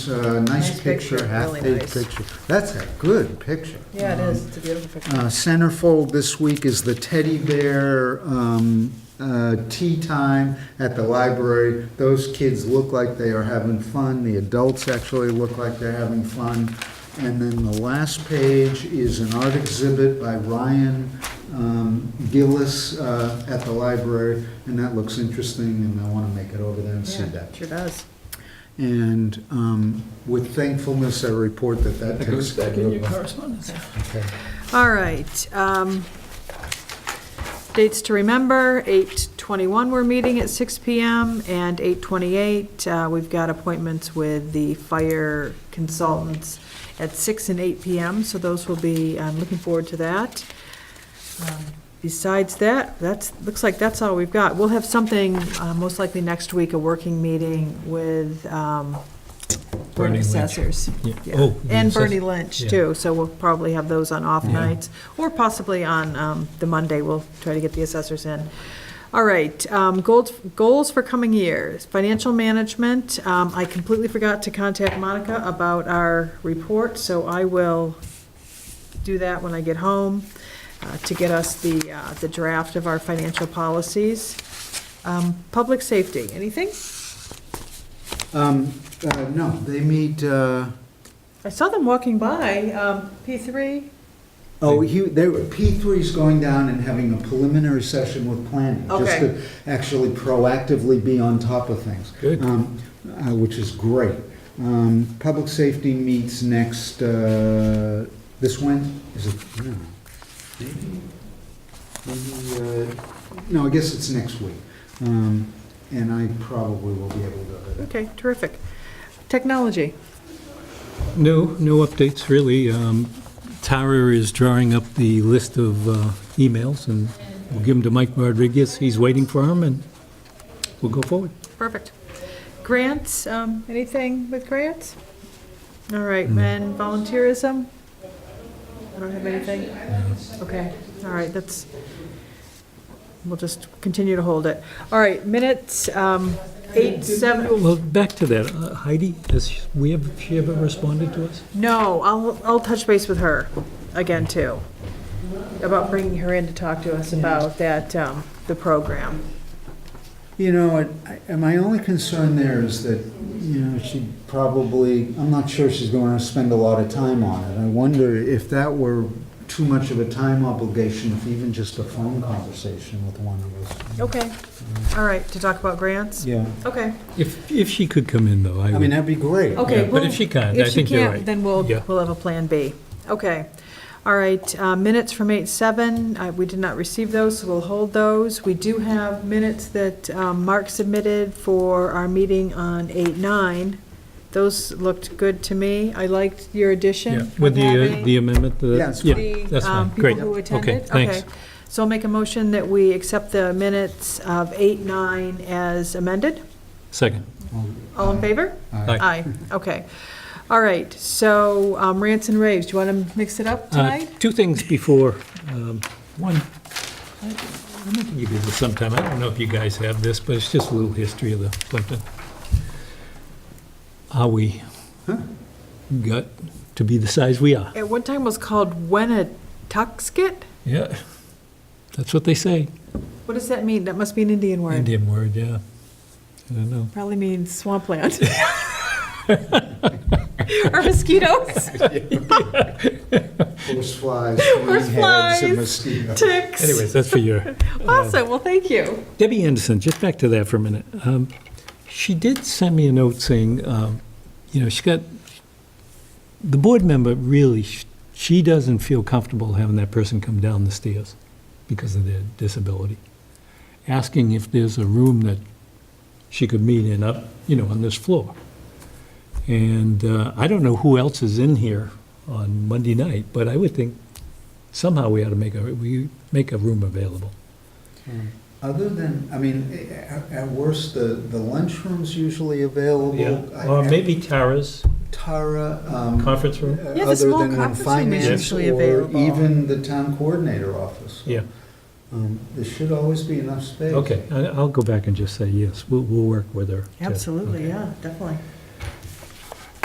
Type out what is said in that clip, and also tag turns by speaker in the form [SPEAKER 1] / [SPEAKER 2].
[SPEAKER 1] Uh, nice
[SPEAKER 2] Nice
[SPEAKER 1] picture,
[SPEAKER 2] picture, really
[SPEAKER 1] half-page
[SPEAKER 2] nice.
[SPEAKER 1] picture. That's a good picture.
[SPEAKER 2] Yeah, it is. It's a beautiful picture.
[SPEAKER 1] Uh, Centerfold this week is the teddy bear um, uh, tea time at the library. Those kids look like they are having fun. The adults actually look like they're having fun. And then the last page is an art exhibit by Ryan um, Gillis uh, at the library, and that looks interesting, and I want to make it over there and see
[SPEAKER 2] Yeah,
[SPEAKER 1] that.
[SPEAKER 2] Sure does.
[SPEAKER 1] And um, with thankfulness, I report that that takes.
[SPEAKER 3] correspondence.
[SPEAKER 1] Okay.
[SPEAKER 2] All right. um, Dates to remember, 8:21, we're meeting at 6 PM, and 8:28, uh, we've got appointments with the fire consultants at 6 and 8 PM, so those will be, I'm looking forward to that. Um, Besides that, that's, looks like that's all we've got. We'll have something, uh, most likely next week, a working meeting with um, Board
[SPEAKER 3] Bernie
[SPEAKER 2] of
[SPEAKER 3] Lynch.
[SPEAKER 2] Assessors.
[SPEAKER 3] Yeah.
[SPEAKER 2] Yeah.
[SPEAKER 3] Oh, the
[SPEAKER 2] And
[SPEAKER 3] assess-
[SPEAKER 2] Bernie Lynch,
[SPEAKER 3] yeah.
[SPEAKER 2] too, so we'll probably have those on off
[SPEAKER 3] Yeah.
[SPEAKER 2] nights, or possibly on um, the Monday, we'll try to get the assessors in. All right, um, goals, goals for coming years, financial management, um, I completely forgot to contact Monica about our report, so I will do that when I get home, uh, to get us the, uh, the draft of our financial policies. Um, Public safety, anything?
[SPEAKER 1] Um, uh, no, they meet, uh,
[SPEAKER 2] I saw them walking by, um, P3,
[SPEAKER 1] oh, he, they were, P3's going down and having a preliminary session with planning. Just
[SPEAKER 2] Okay.
[SPEAKER 1] to actually proactively be on top of things.
[SPEAKER 3] Good.
[SPEAKER 1] Um, uh, which is great. Um, public safety meets next, uh, this Wednesday, is it, no. Maybe, maybe, uh, no, I guess it's next week. Um, and I probably will be able to go to that.
[SPEAKER 2] okay, terrific. Technology.
[SPEAKER 3] No, no updates, really. Um, Tara is drawing up the list of uh, emails, and we'll give them to Mike Rodriguez. He's waiting for them, and we'll go forward.
[SPEAKER 2] Perfect. Grants, um, anything with grants? All right, and volunteerism? I don't have anything? Okay, all right, that's, we'll just continue to hold it. All right, minutes, um, eight, seven,
[SPEAKER 3] Well, back to that. Uh, Heidi, has we ever, she ever responded to us?
[SPEAKER 2] no, I'll, I'll touch base with her again, too, about bringing her in to talk to us about that, um, the program.
[SPEAKER 1] You know, and I- and my only concern there is that, you know, she probably, I'm not sure she's going to spend a lot of time on it. I wonder if that were too much of a time obligation, if even just a phone conversation with one of us.
[SPEAKER 2] Okay, all right, to talk about grants?
[SPEAKER 1] Yeah,
[SPEAKER 2] Okay.
[SPEAKER 3] If, if she could come in, though, I
[SPEAKER 1] I mean,
[SPEAKER 3] would.
[SPEAKER 1] that'd be great.
[SPEAKER 2] Okay,
[SPEAKER 3] Yeah, But
[SPEAKER 2] well,
[SPEAKER 3] if she can't, Uh, I
[SPEAKER 2] If she
[SPEAKER 3] think you're
[SPEAKER 2] can't,
[SPEAKER 3] right.
[SPEAKER 2] then we'll,
[SPEAKER 3] Yeah.
[SPEAKER 2] we'll have a Plan B. Okay. All right, uh, minutes from 8:07, Uh, we did not receive those, so we'll hold those. We do have minutes that um, Mark submitted for our meeting on 8:09. Those looked good to me. I liked your
[SPEAKER 3] Yeah,
[SPEAKER 2] addition.
[SPEAKER 3] With the uh,
[SPEAKER 2] having
[SPEAKER 3] the amendment, to that-
[SPEAKER 1] Yeah, it's
[SPEAKER 3] yeah,
[SPEAKER 2] the,
[SPEAKER 3] that's
[SPEAKER 2] um,
[SPEAKER 3] fine. Great.
[SPEAKER 2] People who
[SPEAKER 3] Okay,
[SPEAKER 2] attended.
[SPEAKER 3] thanks.
[SPEAKER 2] So I'll make a motion that we accept the minutes of 8:09 as amended.
[SPEAKER 3] Second.
[SPEAKER 2] All in favor?
[SPEAKER 1] Aye.
[SPEAKER 2] Aye, okay. All right, so um, rants and raves, do you want to mix it up
[SPEAKER 3] Uh,
[SPEAKER 2] tonight?
[SPEAKER 3] Two things before, um, one, I I don't think you did this sometime, I don't know if you guys have this, but it's just a little history of the Plimpton. How we got to be the size we are.
[SPEAKER 2] At one time it was called Wenatuxkit?
[SPEAKER 3] Yeah, that's what they say,
[SPEAKER 2] What does that mean? That must be an Indian word.
[SPEAKER 3] Indian word, yeah. I don't know.
[SPEAKER 2] Probably means swampland. Or mosquitoes,
[SPEAKER 1] Horse flies,
[SPEAKER 2] Horse
[SPEAKER 1] green heads,
[SPEAKER 2] flies.
[SPEAKER 1] and mosquitoes.
[SPEAKER 2] ticks.
[SPEAKER 3] Anyways, uh, that's for your,
[SPEAKER 2] Awesome, well, thank you.
[SPEAKER 3] Debbie Anderson, just back to that for a minute. Um, She did send me a note saying, um, you know, she got, the board member really, sh- she doesn't feel comfortable having that person come down the stairs because of their disability. Asking if there's a room that she could meet in up, you know, on this floor. And uh, I don't know who else is in here on Monday night, but I would think somehow we ought to make a, we make a room available.
[SPEAKER 1] Other than, I mean, eh, at at worst, the the lunchroom's usually available. I-
[SPEAKER 3] Or Uh, maybe Tara's
[SPEAKER 1] Tara. um,
[SPEAKER 3] conference room?
[SPEAKER 1] uh,
[SPEAKER 2] Yeah, the small
[SPEAKER 1] Other than when
[SPEAKER 2] conference room is
[SPEAKER 1] finance
[SPEAKER 2] usually
[SPEAKER 1] or
[SPEAKER 2] available.
[SPEAKER 1] even the town coordinator office.
[SPEAKER 3] Yeah,
[SPEAKER 1] Um, There should always be enough space.
[SPEAKER 3] okay, I- I'll go back and just say yes, we'll, we'll work with her. to-
[SPEAKER 2] Absolutely, yeah, definitely.